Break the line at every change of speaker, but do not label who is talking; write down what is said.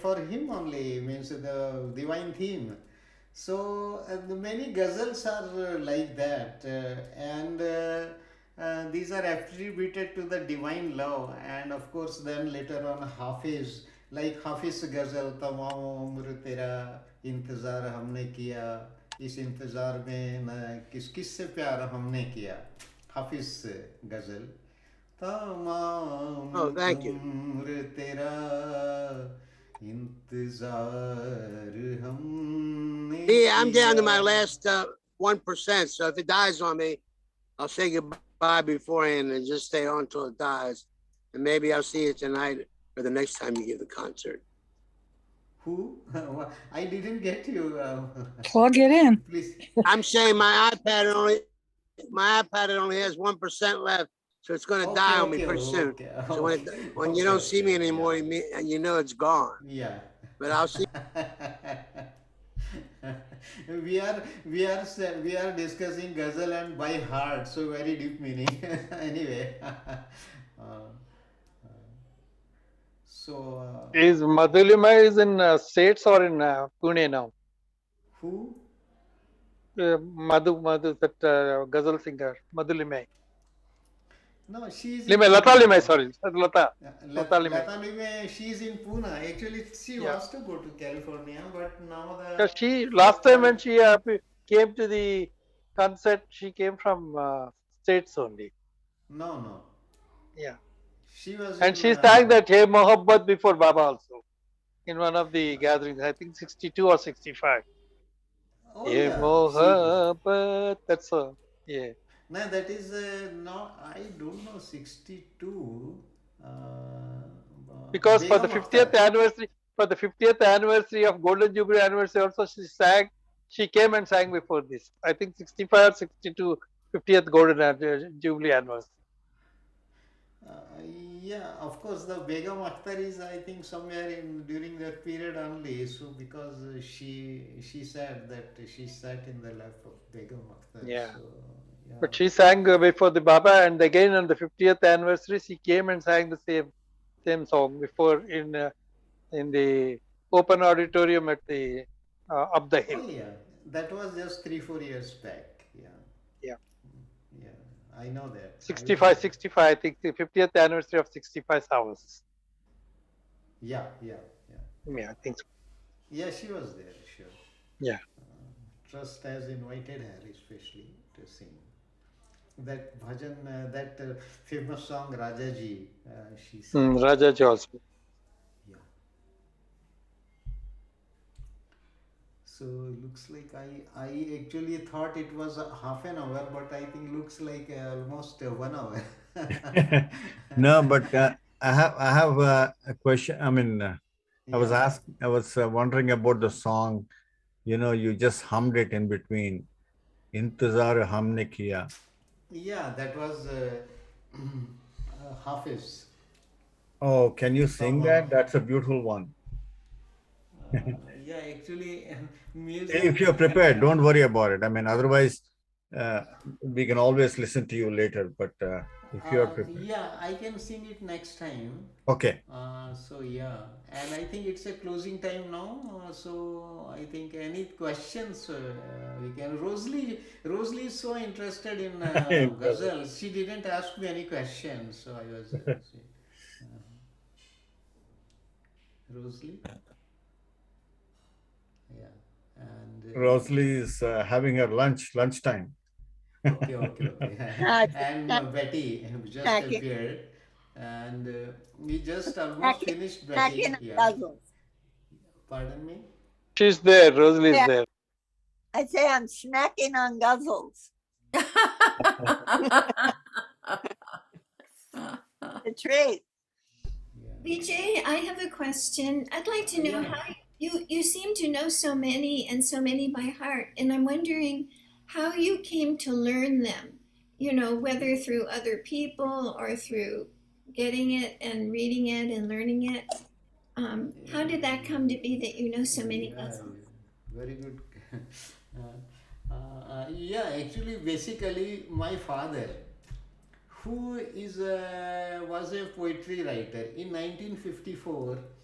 for him only, means the divine theme. So uh, the many ghazals are uh, like that, uh, and uh, uh, these are attributed to the divine love, and of course, then later on, Hafiz, like Hafiz ghazal, तमाम उम्र तेरा इंतज़ार हमने किया इस इंतज़ार में न किस किस से प्यार हमने किया हाफिज गजल तमाम
Oh, thank you.
उम्र तेरा इंतजार हमने
Yeah, I'm down to
किया
my last uh, one so if it dies on me, I'll say goodbye beforehand and just stay on till it dies, and maybe I'll see you tonight or the next time you give the concert.
who I didn't get you uh,
Plug it in.
please
I'm saying my iPad only, my iPad only has one percent left, so it's going to die on me pretty soon.
okay,
So when
okay,
it, when you
Oh,
don't
okay,
see me
okay,
anymore, you mean, and you know it's gone.
yeah
But I'll see.
we are we are sa- we are discussing ghazal and by heart so very deep meaning anyway Uh, so uh,
Is Madhulima is in uh, States or in uh, Pune now?
who
Uh, Madhu, Madhu, that uh, ghazal singer, Madhulimai.
no she is in
Limai, Lata
Pune.
Limai, sorry, Lata.
Uh,
Lata
Lat-
Limai.
Lata Limai, she is in Pune. Actually, she
Yeah.
wants to go to California, but now the
Yeah, she last time when she uh, p- came to the concert, she came from uh, States only.
no no
Yeah,
she was
and
in,
she
uh,
sang that Hey Mohabbat before Baba also in one of the gatherings. I think 62 or 65.
Oh, yeah.
Hey
She-
Mohabbat, that's all. Yeah.
No, that is uh, no. I don't know. Sixty-two. Uh,
because for the
Begum
50th
Akhtar.
anniversary for the 50th anniversary of golden jubilee anniversary also she sang she came and sang before this i think 65 or 62 50th golden An- jubilee anniversary
Uh, yeah, of course, the Begum Akhtar is, I think, somewhere in during that period only. So because uh, she she said that she sat in the lap of Begum Akhtar.
Yeah.
So, yeah.
but she sang uh, before the baba and again on the 50th anniversary she came and sang the same same song before in uh, in the open auditorium at the uh, up the hill
Oh yeah, that was just three four years back. Yeah.
Yeah.
Yeah, I know that. I
65
was-
65 i think the 50th anniversary of 65 hours
Yeah, yeah, yeah.
yeah i think so.
Yeah, she was there, sure.
Yeah.
Trust has invited her especially to sing. That bhajan, uh, that uh, famous song Rajaji, uh, she sang.
mm, rajaji also
Yeah. So looks like I, I actually thought it was a half an hour, but I think looks like uh, almost uh, one hour.
No, but uh, I have I have uh, a question. I mean, uh, I was
Yeah.
asked, I was uh, wondering about the song. You know, you just hummed it in between. Intezar humne kiya.
Yeah, that was uh, uh, Hafiz.
Oh, can you sing that? That's a beautiful one.
Uh, yeah, actually, music.
If you're prepared, don't worry about it. I mean, otherwise, uh, we can always listen to you later. But uh, if you're
Uh,
prepared,
yeah, I can sing it next time.
okay.
Uh, so yeah, and I think it's a closing time now. Uh, so I think any questions uh, we can. Rosalie, Rosalie is so interested in uh, ghazal. She didn't ask me any questions, so I was. Uh, Rosalie. Yeah, and. uh,
Rosalie is uh, having her lunch lunchtime.
okay, okay, okay. and uh, Betty just
Second.
appeared, and uh, we just almost
Second.
finished Betty.
Second
Yeah.
puzzles.
Pardon me.
she's there rosalie is
Yeah.
there
I say I'm snacking on guzzles. The treat.
Yeah.
Vijay, I have a question. I'd like to know
Oh, Yeah.
how you you seem to know so many and so many by heart, and I'm wondering how you came to learn them. You know, whether through other people or through getting it and reading it and learning it. Um, how did that come to be that you know so many
Yeah,
puzzles?
very good. uh, uh, yeah, actually, basically, my father, who is a, was a poetry writer, in 1954,